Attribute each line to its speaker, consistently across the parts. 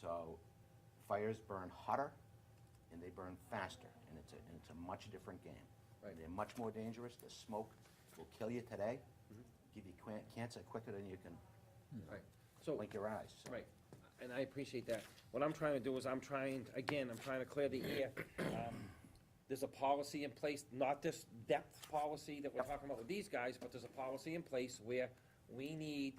Speaker 1: So fires burn hotter and they burn faster, and it's a, and it's a much different game.
Speaker 2: Right.
Speaker 1: They're much more dangerous, the smoke will kill you today,
Speaker 2: Mm-hmm.
Speaker 1: give you quan- cancer quicker than you can
Speaker 2: Right, so,
Speaker 1: blink your eyes. so.
Speaker 2: right, and I appreciate that. What I'm trying to do is I'm trying, again, I'm trying to clear the air. Um, There's a policy in place, not this depth policy that we're
Speaker 1: Yep.
Speaker 2: talking about with these guys, but there's a policy in place where we need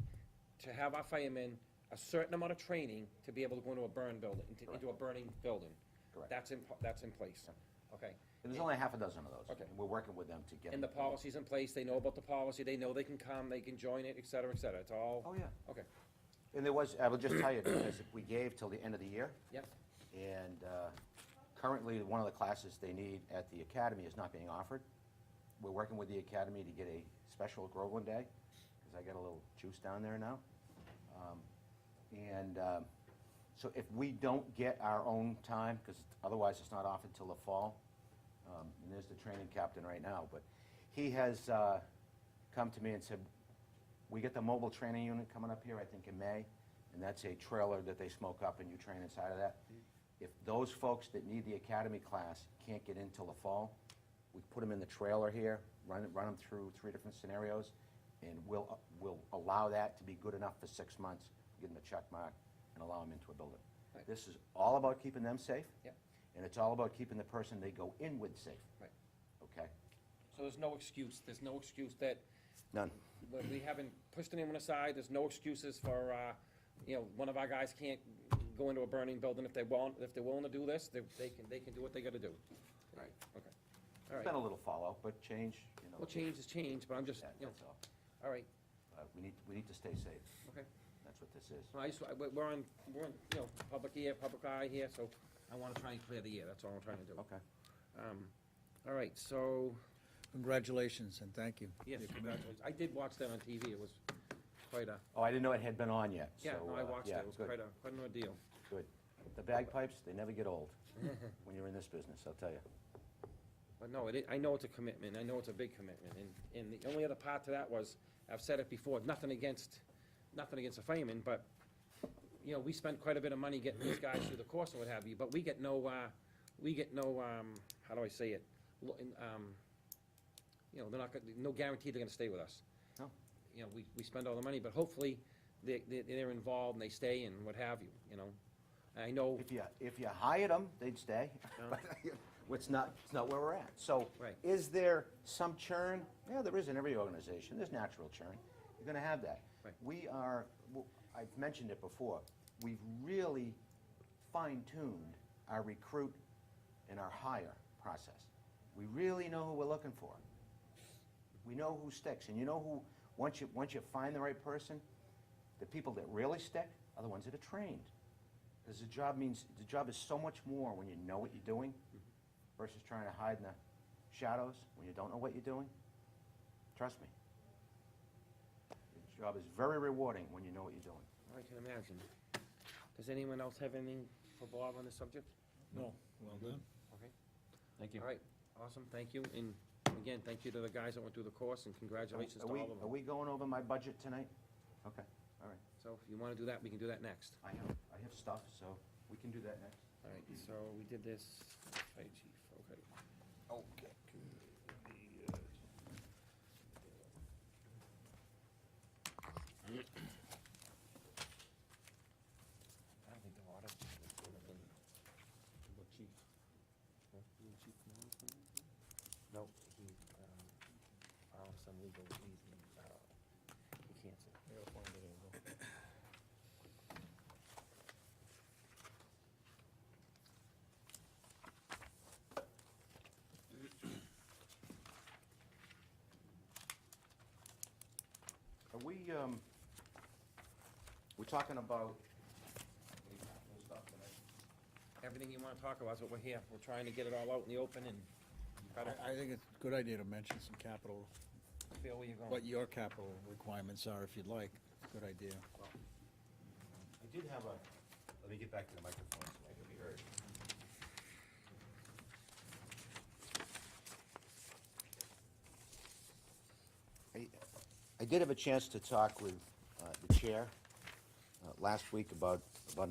Speaker 2: to have our firemen a certain amount of training to be able to go into a burn building, into- into a burning building.
Speaker 1: Correct.
Speaker 2: That's in, that's in place, okay?
Speaker 1: And there's only half a dozen of those.
Speaker 2: Okay.
Speaker 1: And we're working with them to get.
Speaker 2: And the
Speaker 1: them-
Speaker 2: policy's in place, they know about the policy, they know they can come, they can join it, et cetera, et cetera, it's all.
Speaker 1: Oh, yeah.
Speaker 2: Okay,
Speaker 1: And there was, I will just tell you, because we gave till the end of the year,
Speaker 2: yep,
Speaker 1: and uh, currently, one of the classes they need at the academy is not being offered. We're working with the academy to get a special Groveland Day, because I got a little juice down there now. Um, And um, so if we don't get our own time, because otherwise it's not offered till the fall, um, and there's the training captain right now, but he has uh, come to me and said, we get the mobile training unit coming up here, I think in May, and that's a trailer that they smoke up and you train inside of that. If those folks that need the academy class can't get in till the fall, we put them in the trailer here, run, run them through three different scenarios, and we'll, uh, we'll allow that to be good enough for six months, give them a check mark, and allow them into a building.
Speaker 2: Right.
Speaker 1: This is all about keeping them safe.
Speaker 2: Yep.
Speaker 1: And it's all about keeping the person they go in with safe,
Speaker 2: right.
Speaker 1: okay?
Speaker 2: So there's no excuse, there's no excuse that,
Speaker 1: None.
Speaker 2: that we haven't pushed anyone aside, there's no excuses for, uh, you know, one of our guys can't go into a burning building if they want, if they're willing to do this, they, they can, they can do what they gotta do.
Speaker 1: Right.
Speaker 2: Okay, all
Speaker 1: It's been
Speaker 2: right.
Speaker 1: a little fallout, but change, you know.
Speaker 2: Well, change is change, but I'm just,
Speaker 1: that-
Speaker 2: you know,
Speaker 1: That's all.
Speaker 2: all right,
Speaker 1: Uh, We need, we need to stay safe.
Speaker 2: okay.
Speaker 1: That's what this is.
Speaker 2: So I just, I- we're on, we're on, you know, public ear, public eye here, so I wanna try and clear the air, that's all I'm trying to do.
Speaker 1: Okay.
Speaker 2: Um, all right, so,
Speaker 3: Congratulations and thank you.
Speaker 2: yes, congratulations, I did watch that on TV, it was quite a,
Speaker 1: Oh, I didn't know it had been on yet, so.
Speaker 2: yeah, no, I
Speaker 1: uh,
Speaker 2: watched it,
Speaker 1: yeah,
Speaker 2: it was
Speaker 1: good,
Speaker 2: quite a, quite an ordeal.
Speaker 1: Good. The bagpipes, they never get old when you're in this business, I'll tell you.
Speaker 2: But no, it, i- I know it's a commitment, I know it's a big commitment, and, and the only other part to that was, I've said it before, nothing against, nothing against the firemen, but, you know, we spend quite a bit of money getting these guys through the course and what have you, but we get no, uh, we get no, um, how do I say it? Lo- in, um, You know, they're not, gonna- no guarantee they're gonna stay with us.
Speaker 1: No.
Speaker 2: You know, we, we spend all the money, but hopefully, they, they- they're involved and they stay and what have you, you know? I know,
Speaker 1: If you, if you hired them, they'd stay. But It's not, it's not where we're at. So
Speaker 2: Right.
Speaker 1: is there some churn? Yeah, there is in every organization. There's natural churn. You're going to have that.
Speaker 2: Right.
Speaker 1: We are, w- I've mentioned it before, we've really fine-tuned our recruit and our hire process. We really know who we're looking for. We know who sticks, and you know who, once you, once you find the right person, the people that really stick are the ones that are trained. Because the job means, the job is so much more when you know what you're doing versus trying to hide in the shadows when you don't know what you're doing. Trust me. The job is very rewarding when you know what you're doing.
Speaker 2: I can imagine. Does anyone else have anything for Bob on this subject?
Speaker 3: No, well done.
Speaker 2: Okay. Thank you. All right, awesome, thank you, and again, thank you to the guys that went through the course, and congratulations
Speaker 1: Are
Speaker 2: to
Speaker 1: we,
Speaker 2: all of
Speaker 1: are
Speaker 2: them.
Speaker 1: we going over my budget tonight? Okay, all right.
Speaker 2: So if you wanna do that, we can do that next.
Speaker 1: I have, I have stuff, so we can do that next.
Speaker 2: All right, so we did this, fire chief, okay.
Speaker 1: Okay.
Speaker 2: I don't think the water. chief? No, he, um, found some legal reason, uh, he canceled.
Speaker 1: Are we, um, we're talking about.
Speaker 2: Everything you wanna talk about is what we're here, we're trying to get it all out in the open and try to
Speaker 3: I, I think it's a good idea to mention some capital,
Speaker 2: feel where you're going.
Speaker 3: what your capital requirements are, if you'd like. Good idea.
Speaker 1: I did have a, let me get back to the microphone so I can be heard. I, I did have a chance to talk with uh, the chair uh, last week about